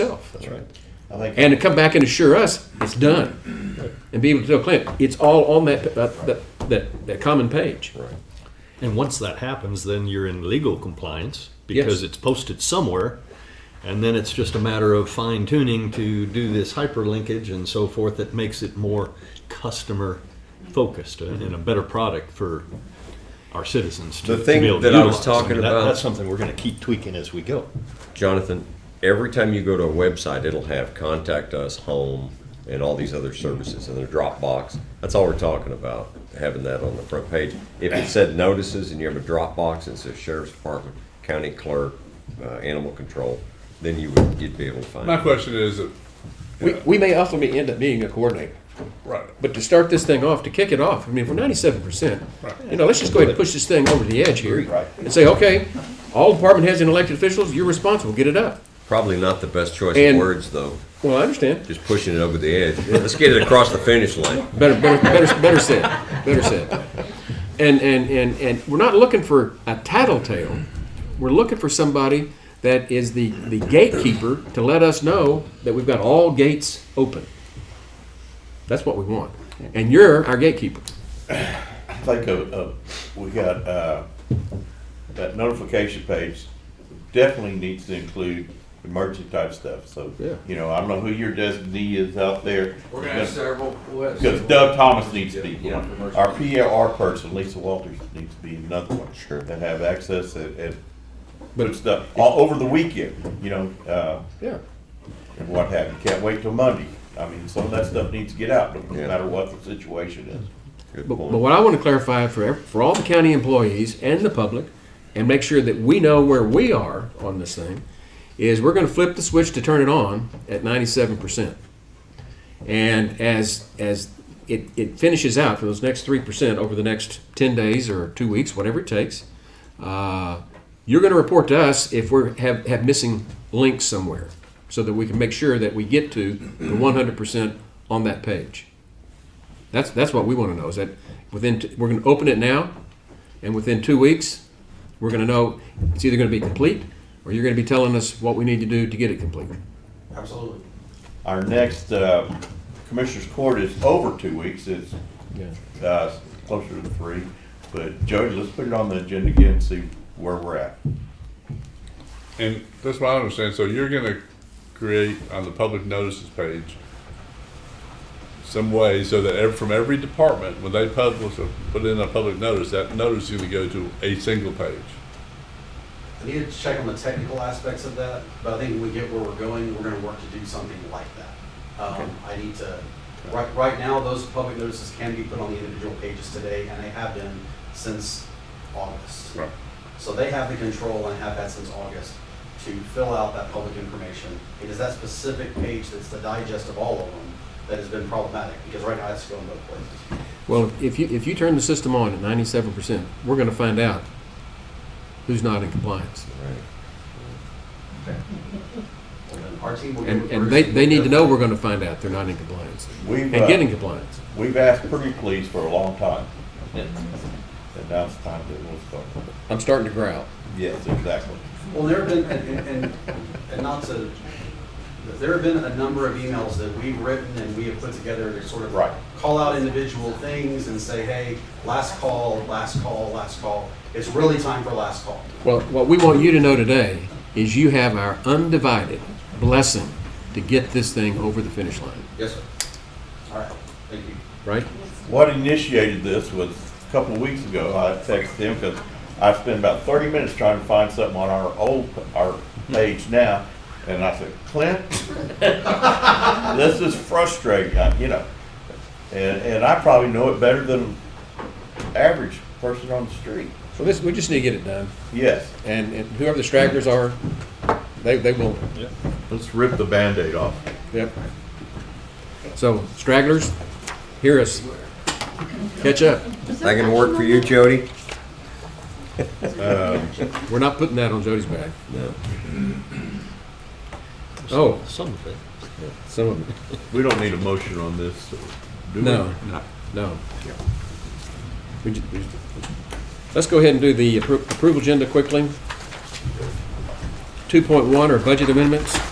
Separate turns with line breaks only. itself.
That's right.
I think
And to come back and assure us it's done and be able to tell Clint it's all on that, uh, that, that, that common page.
Right.
And once that happens, then you're in legal compliance because
Yes.
it's posted somewhere. And then it's just a matter of fine tuning to do this hyperlinkage and so forth that makes it more customer focused and and a better product for our citizens to,
Mm-hmm. The
to
thing
be able
that
to
I was
utilize.
talking
that-
about-
that's something we're going to keep tweaking as we go.
Jonathan, every time you go to a website, it'll have contact us, home, and all these other services and their Dropbox. That's all we're talking about, having that on the front page. If it said notices and you have a Dropbox and it says sheriff's department, county clerk, uh, animal control, then you would, you'd be able to find
My
it.
question is, that-
We, we may ultimately end up being a coordinator.
right,
But to start this thing off, to kick it off, I mean, if we're ninety-seven percent,
Right.
you know, let's just go ahead and push this thing over the edge here.
Right.
And say, okay, all department heads and elected officials, you're responsible, get it up.
Probably not the best choice
And-
of words, though,
Well, I understand,
just pushing it over the edge. Let's get it across the finish line.
better, better, better, better said, better said. And, and, and, and we're not looking for a tattletale, we're looking for somebody that is the, the gatekeeper to let us know that we've got all gates open. That's what we want, and you're our gatekeeper.
I think of, of, we got, uh, that notification page definitely needs to include emergency type stuff, so.
Yeah.
You know, I don't know who your designee is out there.
We're gonna have several. we'll have
Because
several.
Doug Thomas needs to be
Yeah,
one.
yeah.
Our PRR person, Lisa Walters, needs to be another one. Sure. That have access and, and put stuff all over the weekend, you know, uh,
Yeah.
and what have you. Can't wait till Monday. I mean, some of that stuff needs to get out, no
Yeah.
matter what the situation is.
Good
But,
point.
but what I want to clarify for, ev- for all the county employees and the public, and make sure that we know where we are on this thing, is we're going to flip the switch to turn it on at 97%. And as, as it, it finishes out for those next 3% over the next 10 days or two weeks, whatever it takes, uh, you're going to report to us if we have, have missing links somewhere so that we can make sure that we get to the 100% on that page. That's, that's what we want to know, is that within, t- we're going to open it now, and within two weeks, we're going to know, it's either going to be complete, or you're going to be telling us what we need to do to get it complete.
Absolutely.
Our next, uh, Commissioners Court is over two weeks. It's, uh, closer to three. But Jody, let's put it on the agenda again, and see where we're at.
and that's what I understand, so you're gonna create on the public notices page some way so that ev- from every department, when they publish, or put in a public notice, that notice is gonna go to a single page.
I need to check on the technical aspects of that, but I think when we get where we're going, we're gonna work to do something like that. Um, I need to, right, right now, those public notices can be put on the individual pages today, and they have been since August.
Right.
So they have the control and have had since August to fill out that public information. It is that specific page that's the digest of all of them that has been problematic, because right now it's going both places.
Well, if you, if you turn the system on at ninety-seven percent, we're going to find out who's not in compliance.
And Our team will. get
And,
with
and
Bruce
they, they need to know we're going
Yeah.
to find out they're not in compliance,
We've,
and
uh,
get in compliance.
We've asked pretty please for a long time. And now it's time that we'll start.
I'm starting to growl.
Yes, exactly.
Well, there have been, and, and- and, and not to, there have been a number of emails that we've written and we have put together to sort of.
Right.
Call out individual things and say, hey, last call, last call, last call. It's really time for last call.
Well, what we want you to know today is you have our undivided blessing to get this thing over the finish line,
Yes, sir. All right, thank you.
right?
What initiated this was a couple of weeks ago, I texted him because I spent about thirty minutes trying to find something on our old, our page now. And I said, Clint, this is frustrating, I- you know. And, and I probably know it better than average person on the street.
So this, we just need to get it done,
Yes,
and, and whoever the stragglers are, they, they will,
let's rip the Band-Aid off.
yep. So stragglers, hear us. Catch up.
That gonna work for you, Jody?
We're not putting that on Jody's back. Oh,
Some of it.
some of it.
We don't need a motion on this, do
No, no. We ju- we ju- Let's go ahead and do the appro- approval agenda quickly. 2.1 are budget amendments.